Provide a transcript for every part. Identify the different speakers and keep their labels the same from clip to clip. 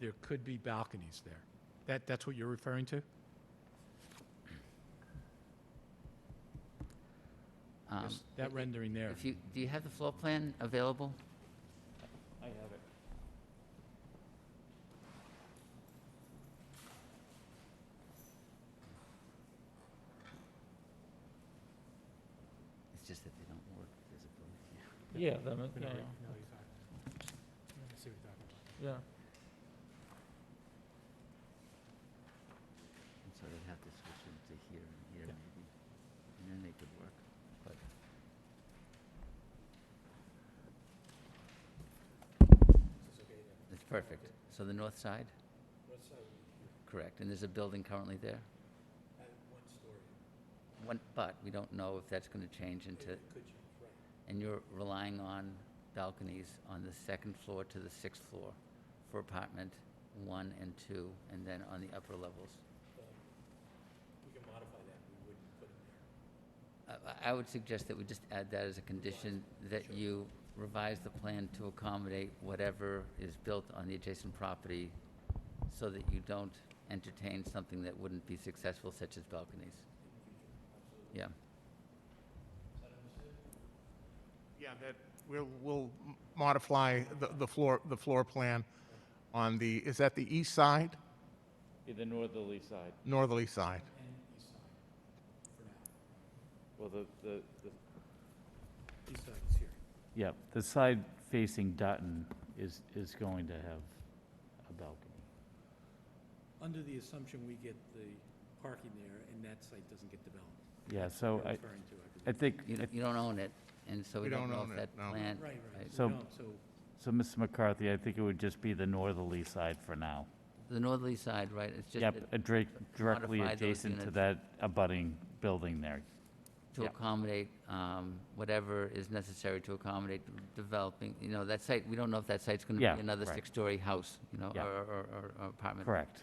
Speaker 1: there could be balconies there. That, that's what you're referring to?
Speaker 2: Um,
Speaker 1: Yes, That rendering there?
Speaker 2: If you, do you have the floor plan available?
Speaker 1: I have it.
Speaker 2: It's just that they don't work visibly.
Speaker 3: Yeah, that, ma- yeah, yeah.
Speaker 2: And so they'd have to switch them to here and here
Speaker 1: Yeah.
Speaker 2: maybe. And then they could work. But It's perfect. So the north side? Correct. And there's a building currently there? One, but we don't know if that's going to change into... And you're relying on balconies on the second floor to the sixth floor for apartment one and two, and then on the upper levels? I- I- I would suggest that we just add that as a condition, that you revise the plan to accommodate whatever is built on the adjacent property so that you don't entertain something that wouldn't be successful, such as balconies. Yeah,
Speaker 4: Yeah, that, we'll, we'll modify the, the floor, the floor plan on the, is that the east side,
Speaker 3: Yeah, the northerly side.
Speaker 4: northerly side?
Speaker 3: Well, the, the, the. Yeah, the side facing Dutton is, is going to have a balcony.
Speaker 5: Under the assumption we get the parking there and that site doesn't get developed.
Speaker 3: Yeah, so
Speaker 5: You're
Speaker 3: I,
Speaker 5: referring to, I believe.
Speaker 3: I think,
Speaker 2: you,
Speaker 3: I-
Speaker 2: you don't own it, and so we
Speaker 4: We
Speaker 2: don't
Speaker 4: don't
Speaker 2: know
Speaker 4: own
Speaker 2: if
Speaker 4: it,
Speaker 2: that
Speaker 4: no.
Speaker 2: plan.
Speaker 5: Right, right.
Speaker 3: So-
Speaker 5: We don't, So,
Speaker 3: so Mrs. McCarthy, I think it would just be the northerly side for now.
Speaker 2: The northerly side, right, it's just
Speaker 3: Yep,
Speaker 2: that-
Speaker 3: a dra- directly
Speaker 2: modify those
Speaker 3: adjacent to
Speaker 2: units.
Speaker 3: that abutting building there.
Speaker 2: to
Speaker 3: yep.
Speaker 2: accommodate, um, whatever is necessary to accommodate developing, you know, that site, we don't know if that site's gonna
Speaker 3: Yeah,
Speaker 2: be another
Speaker 3: right.
Speaker 2: six-story house, you know, or,
Speaker 3: Yeah.
Speaker 2: or, or- or apartment.
Speaker 3: Correct,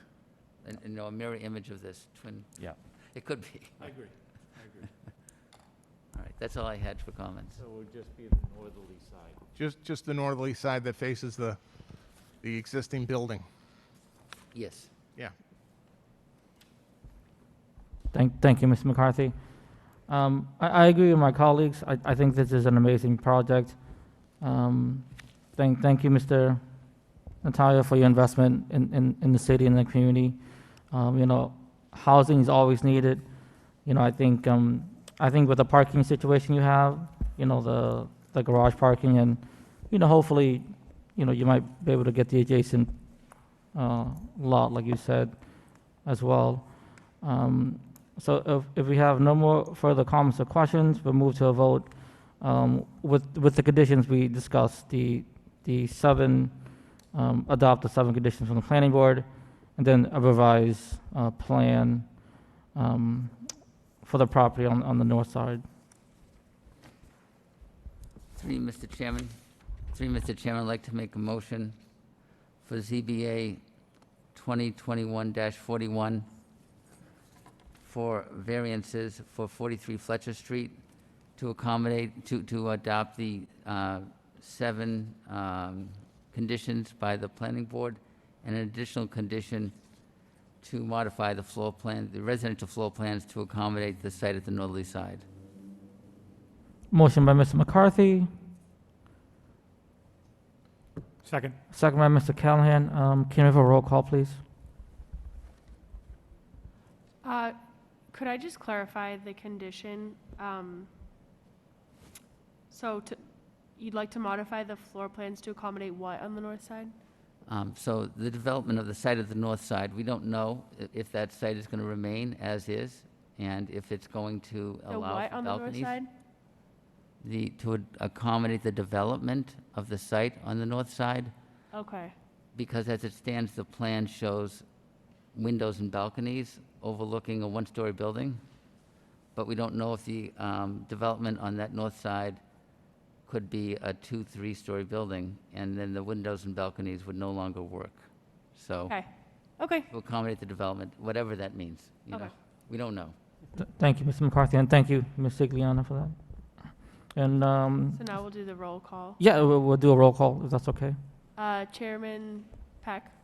Speaker 2: And, and, you know, a mirror image of this twin,
Speaker 3: yeah.
Speaker 2: it could be.
Speaker 5: I agree, I agree.
Speaker 2: All right, that's all I had for comments.
Speaker 3: it would just be the northerly side.
Speaker 4: Just, just the northerly side that faces the, the existing building,
Speaker 2: Yes.
Speaker 4: yeah.
Speaker 6: Thank, thank you, Mr. McCarthy. Um, I, I agree with my colleagues. I, I think this is an amazing project. Um, thank, thank you, Mr. Natalia, for your investment in, in, in the city and the community. Um, you know, housing is always needed. You know, I think, um, I think with the parking situation you have, you know, the, the garage parking and, you know, hopefully, you know, you might be able to get the adjacent, uh, lot, like you said, as well. Um, So if, if we have no more further comments or questions, we'll move to a vote um, with, with the conditions we discussed, the, the seven, um, adopt the seven conditions from the planning board, and then a revised uh, plan um, for the property on, on the north side.
Speaker 2: Three, Mr. Chairman. Three, Mr. Chairman, I'd like to make a motion for ZBA 2021-41 for variances for 43 Fletcher Street to accommodate, to, to adopt the uh, seven um, conditions by the planning board and an additional condition to modify the floor plan, the residential floor plans to accommodate the site at the northerly side.
Speaker 6: Motion by Mr. McCarthy,
Speaker 1: Second.
Speaker 6: second by Mr. Callahan. Um, Can we have a roll call, please?
Speaker 7: Uh, Could I just clarify the condition? Um, So to- you'd like to modify the floor plans to accommodate what on the north side?
Speaker 2: Um, So the development of the site of the north side, we don't know i- if that site is going to remain as is and if it's going to
Speaker 7: The
Speaker 2: allow
Speaker 7: what
Speaker 2: for
Speaker 7: on the north
Speaker 2: balconies.
Speaker 7: side?
Speaker 2: The, to ad- accommodate the development of the site on the north side,
Speaker 7: Okay,
Speaker 2: because as it stands, the plan shows windows and balconies overlooking a one-story building. But we don't know if the um, development on that north side could be a two, three-story building, and then the windows and balconies would no longer work. So.
Speaker 7: okay, okay.
Speaker 2: to accommodate the development, whatever that means, you know?
Speaker 7: Okay.
Speaker 2: We don't know.
Speaker 6: Th- Thank you, Mr. McCarthy, and thank you, Ms. Sigliano, for that. And um,
Speaker 7: So now we'll do the roll call.
Speaker 6: Yeah, we'll, we'll do a roll call, if that's okay.
Speaker 7: Uh, Chairman Peck,